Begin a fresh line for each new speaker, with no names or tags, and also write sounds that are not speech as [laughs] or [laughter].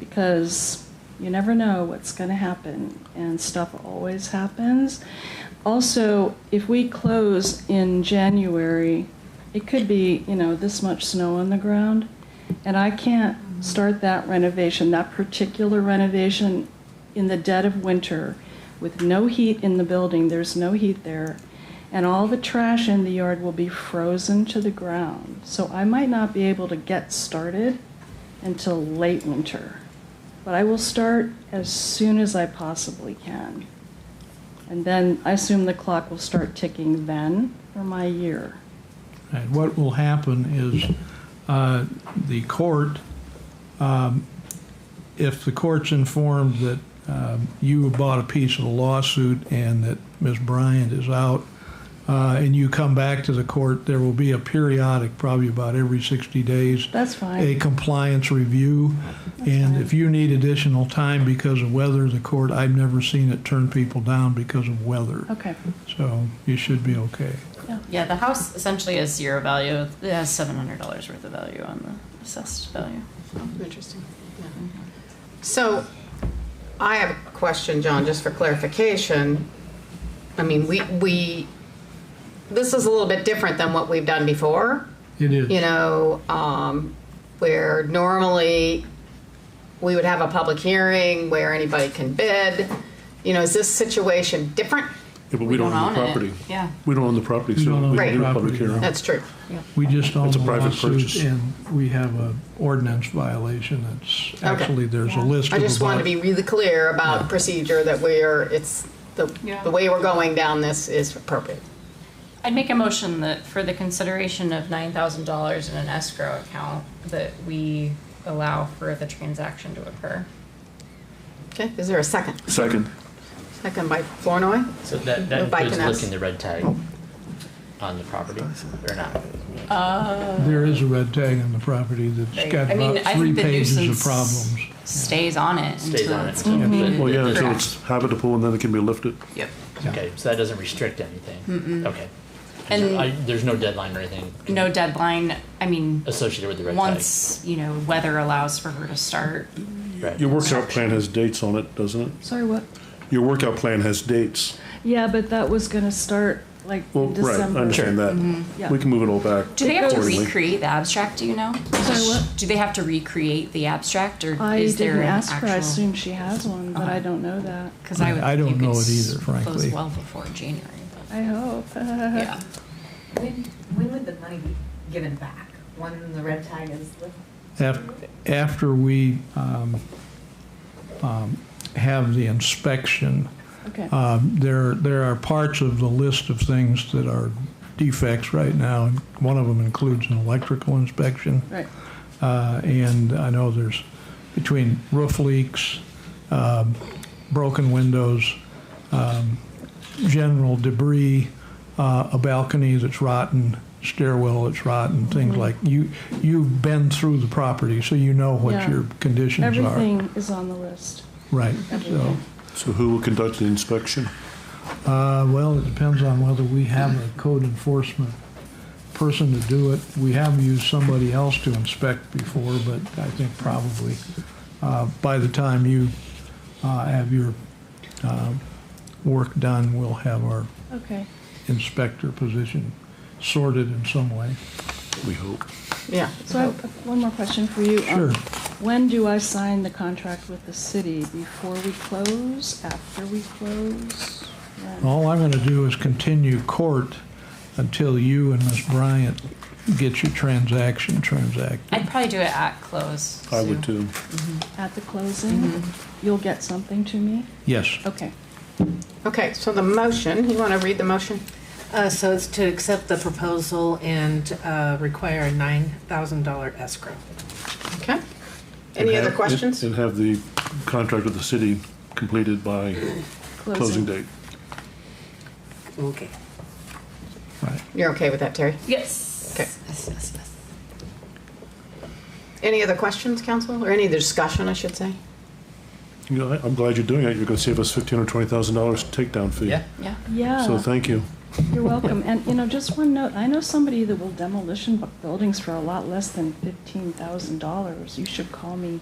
because you never know what's going to happen, and stuff always happens. Also, if we close in January, it could be, you know, this much snow on the ground, and I can't start that renovation, that particular renovation, in the dead of winter with no heat in the building, there's no heat there, and all the trash in the yard will be frozen to the ground. So I might not be able to get started until late winter, but I will start as soon as I possibly can. And then I assume the clock will start ticking then for my year.
And what will happen is uh, the court, um, if the court's informed that um, you bought a piece of the lawsuit and that Ms. Bryant is out, uh, and you come back to the court, there will be a periodic, probably about every 60 days,
That's
a
fine.
compliance review. And if you need additional time because of weather, the court, I've never seen it turn people down because of weather.
Okay,
So you should be okay.
Yeah, the house essentially has zero value. It has seven hundred dollars worth of value on the assessed value.
Interesting. yeah. So I have a question, John, just for clarification. I mean, we, we, this is a little bit different than what we've done before,
It is.
you know, um, where normally we would have a public hearing where anybody can bid. You know, is this situation different?
Yeah, but we don't own the
it.
property.
Yeah.
We don't own the property,
We
so
don't own
we
the
can do a public
property.
hearing.
That's true.
We just own
It's
the
a private
lawsuit
purchase.
and we have a ordinance violation that's,
Okay.
actually, there's a list
I
of
just want to
about.
be really clear about procedure that we're, it's, the, the way we're going down this is appropriate.
I'd make a motion that for the consideration of nine thousand dollars in an escrow account, that we allow for the transaction to occur.
Okay, is there a second?
Second.
Second by Flournoy.
So that, that
Moved by
includes
Kness.
looking the red tag on the property, or not?
There is a red tag on the property that's got
I mean, I
about three
think the
pages of
nuisance
problems.
Stays on it
Stays
until
on it.
it's
so that-
completed.
Well, yeah, until
Correct.
it's habitable and then it can be lifted.
Yep.
Yeah.
Okay, so that doesn't restrict anything? Okay.
And-
I- There's no deadline or anything
No deadline, I mean,
associated with the red tag?
once, you know, weather allows for her to start.
Right.
Your workout plan has dates on it, doesn't it?
sorry, what?
Your workout plan has dates.
Yeah, but that was going to start like
Well,
in
right, I
December.
understand that.
Yeah.
We can move it all back.
Do they have to
accordingly.
recreate the abstract, do you know?
Sorry, what?
Do they have to recreate the abstract, or
I
is there
didn't
an
ask her. I
actual- Uh-huh.
assume she has one, but I don't know that.
Because I would.
I don't
think you
know
could
it either,
s- Close
frankly.
well before January, but,
I hope. [laughs]
yeah.
When, when would the money be given back? When the red tag is lifted?
Af- After we um, um, have the inspection,
Okay.
Uh,
um, there, there are parts of the list of things that are defects right now. and One of them includes an electrical inspection.
Right.
Uh, And I know there's, between roof leaks, um, broken windows, um, general debris, uh, a balcony that's rotten, stairwell that's rotten,
Mm-hmm.
things like, you, you've been through the property, so you know what
Yeah.
your conditions are.
Everything is on the list.
Right, so,
Everything.
So who will conduct the inspection?
uh, well, it depends on whether we have a code enforcement person to do it. We have used somebody else to inspect before, but I think probably uh, by the time you uh, have your uh, work done, we'll have our
Okay.
inspector position sorted in some way.
We hope.
Yeah.
So I
Uh-huh.
have one more question for you. Um,
Sure.
When do I sign the contract with the city? Before we close? After we close? When?
All I'm going to do is continue court until you and Ms. Bryant get your transaction transacted.
I'd probably do it at close.
I
Sue.
would too.
At the closing? You'll get something to me?
Yes.
Okay.
Okay, so the motion, you want to read the motion?
Uh, So it's to accept the proposal and uh, require a $9,000 escrow.
Okay. Any
And
other
have-
questions?
And have the contract with the city completed by closing date.
Okay.
Right.
You're okay with that, Terry?
Yes.
Okay.
Yes, yes, yes.
Any other questions, council, or any other discussion, I should say?
You know, I- I'm glad you're doing it. You're gonna save us fifteen or twenty thousand dollars takedown fee.
Yeah?
Yeah.
So
Yeah,
thank you.
you're welcome. And, you know, just one note, I know somebody that will demolition bu- buildings for a lot less than $15,000. You should call me.